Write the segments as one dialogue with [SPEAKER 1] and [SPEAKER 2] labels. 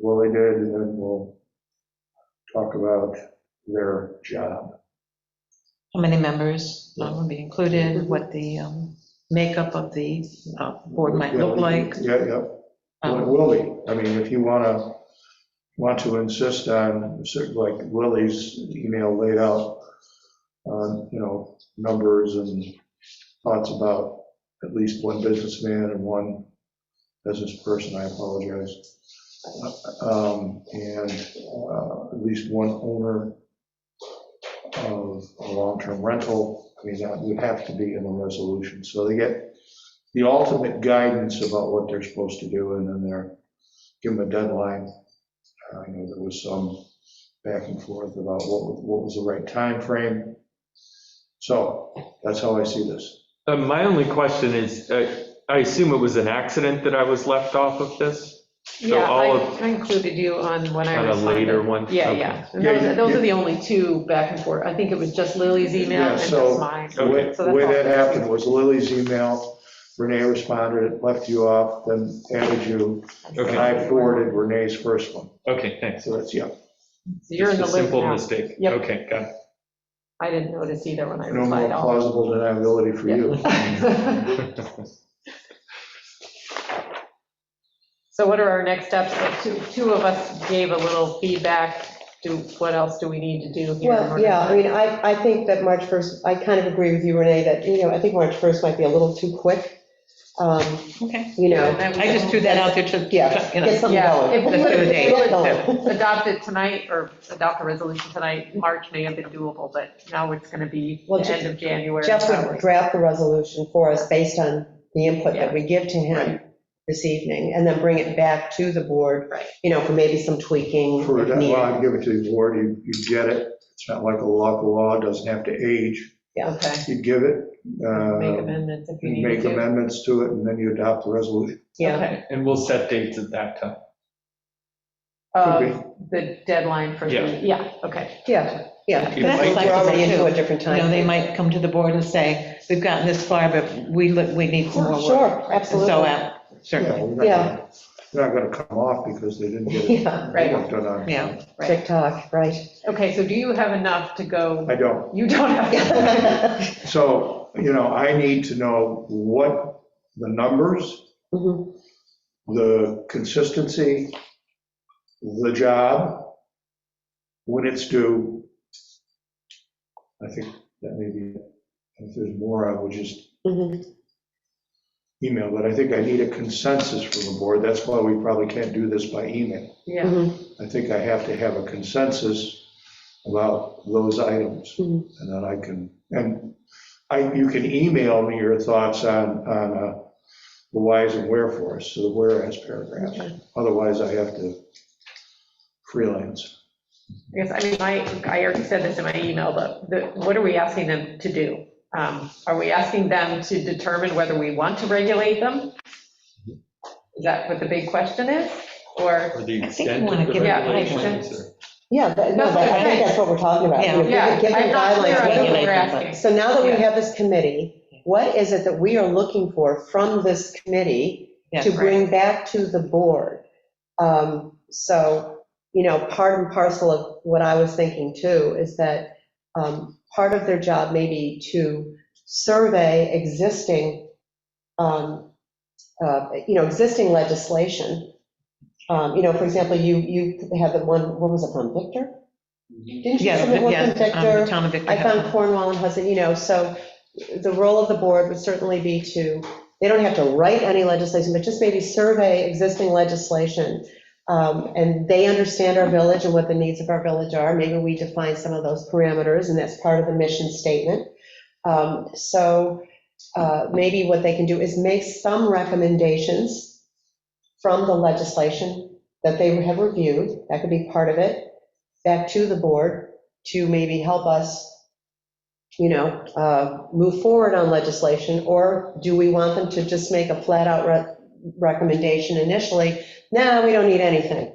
[SPEAKER 1] what they did, and then we'll talk about their job.
[SPEAKER 2] how many members um, will be included, what the um, makeup of the uh, board might look like.
[SPEAKER 1] Yeah, yeah. Well, it
[SPEAKER 2] Um,
[SPEAKER 1] will be. I mean, if you want to, want to insist on, certain like Willie's email laid out, on, you know, numbers and thoughts about at least one businessman and one business person, I apologize. Um, And uh, at least one owner of a long-term rental, I mean, that would have to be in the resolution. So they get the ultimate guidance about what they're supposed to do, and then they're, give them a deadline. Uh, I know there was some back and forth about what, was- what was the right time frame. So that's how I see this.
[SPEAKER 3] Uh, My only question is, uh, I assume it was an accident that I was left off of this? So
[SPEAKER 4] Yeah,
[SPEAKER 3] all
[SPEAKER 4] I
[SPEAKER 3] of-
[SPEAKER 4] I included you on when I
[SPEAKER 3] On a later
[SPEAKER 4] responded.
[SPEAKER 3] one?
[SPEAKER 4] Yeah,
[SPEAKER 3] Okay.
[SPEAKER 4] yeah. And
[SPEAKER 1] Yeah,
[SPEAKER 4] those-
[SPEAKER 1] yeah,
[SPEAKER 4] Those
[SPEAKER 1] yeah.
[SPEAKER 4] are the only two back and forth. I think it was just Lily's email
[SPEAKER 1] Yeah,
[SPEAKER 4] and just
[SPEAKER 1] so-
[SPEAKER 4] mine.
[SPEAKER 1] The way, the
[SPEAKER 4] So that's
[SPEAKER 1] way
[SPEAKER 4] all.
[SPEAKER 1] that happened was Lily's email, Renee responded, left you off, then added you, and
[SPEAKER 3] Okay,
[SPEAKER 1] I forwarded Renee's first one.
[SPEAKER 3] okay, thanks.
[SPEAKER 1] So that's, yeah,
[SPEAKER 4] So you're in the
[SPEAKER 3] Just a
[SPEAKER 4] loop
[SPEAKER 3] simple
[SPEAKER 4] now.
[SPEAKER 3] mistake.
[SPEAKER 4] Yep.
[SPEAKER 3] Okay, got it.
[SPEAKER 4] I didn't notice either when I
[SPEAKER 1] no more
[SPEAKER 4] replied. all.
[SPEAKER 1] plausible deniability for you.
[SPEAKER 4] So what are our next steps? Like, Two, two of us gave a little feedback. Do, what else do we need to do here? in
[SPEAKER 5] Well,
[SPEAKER 4] order
[SPEAKER 5] yeah, I
[SPEAKER 4] to-
[SPEAKER 5] mean, I, I think that March 1st, I kind of agree with you, Renee, that, you know, I think March 1st might be a little too quick. Um,
[SPEAKER 2] Okay,
[SPEAKER 5] You know,
[SPEAKER 2] I just threw that out there to,
[SPEAKER 5] yeah,
[SPEAKER 2] you know,
[SPEAKER 5] get something
[SPEAKER 4] Yeah,
[SPEAKER 5] going.
[SPEAKER 4] if we
[SPEAKER 5] Get
[SPEAKER 2] would've-
[SPEAKER 5] it
[SPEAKER 2] if we
[SPEAKER 5] going.
[SPEAKER 4] Adopt it tonight or adopt a resolution tonight, March may have been doable, but now it's going to be
[SPEAKER 5] Well,
[SPEAKER 4] the end of January.
[SPEAKER 5] Jeff
[SPEAKER 4] probably.
[SPEAKER 5] would draft the resolution for us based on the input
[SPEAKER 4] Yeah.
[SPEAKER 5] that we give to him this evening, and then bring it back to the board,
[SPEAKER 4] Right.
[SPEAKER 5] you know, for maybe some tweaking. if
[SPEAKER 1] For a
[SPEAKER 5] needed.
[SPEAKER 1] deadline, give it to the board, you, you get it. It's not like a local law, it doesn't have to age.
[SPEAKER 4] Okay.
[SPEAKER 1] You give it,
[SPEAKER 4] Make
[SPEAKER 1] uh,
[SPEAKER 4] amendments if you
[SPEAKER 1] you
[SPEAKER 4] need
[SPEAKER 1] make
[SPEAKER 4] to.
[SPEAKER 1] amendments to it, and then you adopt the resolution.
[SPEAKER 5] Yeah,
[SPEAKER 4] Okay.
[SPEAKER 3] And we'll set dates at that time.
[SPEAKER 1] Okay.
[SPEAKER 4] Of Um, the deadline for, the-
[SPEAKER 3] Yeah.
[SPEAKER 4] yeah, okay.
[SPEAKER 5] yeah, yeah.
[SPEAKER 3] That's
[SPEAKER 5] We're
[SPEAKER 2] flexible,
[SPEAKER 5] already into a
[SPEAKER 2] too.
[SPEAKER 5] different
[SPEAKER 2] you
[SPEAKER 5] time.
[SPEAKER 2] know, they might come to the board and say, we've gotten this far, but we, look- we need some more work.
[SPEAKER 5] Sure,
[SPEAKER 2] And So,
[SPEAKER 5] absolutely.
[SPEAKER 2] uh,
[SPEAKER 1] Yeah,
[SPEAKER 2] certainly,
[SPEAKER 1] we're not
[SPEAKER 5] Yeah.
[SPEAKER 1] gonna- They're not gonna come off because they didn't get it
[SPEAKER 5] Yeah,
[SPEAKER 4] Right.
[SPEAKER 1] worked on on.
[SPEAKER 2] yeah.
[SPEAKER 4] Right.
[SPEAKER 5] TikTok, right.
[SPEAKER 4] Okay, so do you have enough to go?
[SPEAKER 1] I don't.
[SPEAKER 4] You don't have.
[SPEAKER 1] So, you know, I need to know what the numbers,
[SPEAKER 5] Mhm.
[SPEAKER 1] the consistency, the job, when it's due. I think that may be, it. if there's more, I will just
[SPEAKER 5] Mhm.
[SPEAKER 1] email, but I think I need a consensus from the board. That's why we probably can't do this by email.
[SPEAKER 4] Yeah.
[SPEAKER 5] Mhm.
[SPEAKER 1] I think I have to have a consensus about those items,
[SPEAKER 5] Mhm.
[SPEAKER 1] and then I can, and I, you can email me your thoughts on, on uh, the whys and wherefores, so the whereas paragraphs. Otherwise, I have to freelance.
[SPEAKER 4] Yes, I mean, my, I already said this in my email, but the, what are we asking them to do? Um, Are we asking them to determine whether we want to regulate them? Is that what the big question is? Or,
[SPEAKER 3] Or the
[SPEAKER 2] I think you
[SPEAKER 3] extent
[SPEAKER 2] wanna
[SPEAKER 3] of the
[SPEAKER 2] give
[SPEAKER 4] it
[SPEAKER 3] regulations. or-
[SPEAKER 5] Yeah, that- no,
[SPEAKER 4] That's
[SPEAKER 5] that-
[SPEAKER 4] what
[SPEAKER 5] I
[SPEAKER 4] I'm
[SPEAKER 5] think
[SPEAKER 4] saying.
[SPEAKER 5] that's what we're talking about. You know, give-
[SPEAKER 4] yeah,
[SPEAKER 5] give them
[SPEAKER 4] I'm not clear
[SPEAKER 5] guidelines,
[SPEAKER 4] on
[SPEAKER 5] what
[SPEAKER 4] what
[SPEAKER 5] do
[SPEAKER 4] we're
[SPEAKER 2] regulate them,
[SPEAKER 4] asking.
[SPEAKER 5] So now that we
[SPEAKER 4] Yeah.
[SPEAKER 5] have this committee, what is it that we are looking for from this committee
[SPEAKER 2] Yeah,
[SPEAKER 5] to bring back to the board? Um, So, you know, part and parcel of what I was thinking too is that um, part of their job may be to survey existing, um, uh, you know, existing legislation. Um, You know, for example, you, you had the one, what was it, on Victor? Didn't you
[SPEAKER 2] Yeah,
[SPEAKER 5] submit one from
[SPEAKER 2] yeah,
[SPEAKER 5] Victor?
[SPEAKER 2] um, Tom and Victor.
[SPEAKER 5] I
[SPEAKER 2] have
[SPEAKER 5] found
[SPEAKER 2] one.
[SPEAKER 5] Cornwall and Hudson, you know, so the role of the board would certainly be to, they don't have to write any legislation, but just maybe survey existing legislation. Um, And they understand our village and what the needs of our village are. Maybe we define some of those parameters, and that's part of the mission statement. Um, So uh, maybe what they can do is make some recommendations from the legislation that they have reviewed, that could be part of it, back to the board to maybe help us, you know, uh, move forward on legislation, or do we want them to just make a flat-out re- recommendation initially? No, we don't need anything.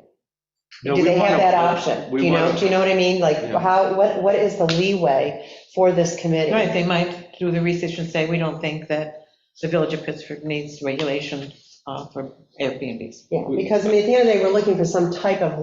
[SPEAKER 3] No,
[SPEAKER 5] Do
[SPEAKER 3] we
[SPEAKER 5] they
[SPEAKER 3] wanna-
[SPEAKER 5] have that option?
[SPEAKER 3] we
[SPEAKER 5] You know,
[SPEAKER 3] wanna-
[SPEAKER 5] do you know what I mean? Like,
[SPEAKER 3] Yeah.
[SPEAKER 5] how, what, what is the leeway for this committee?
[SPEAKER 2] Right, they might do the research and say, we don't think that the Village of Pittsburgh needs regulation uh, for Airbnbs.
[SPEAKER 5] Yeah, because I mean, at the end of the day, we're looking for some type of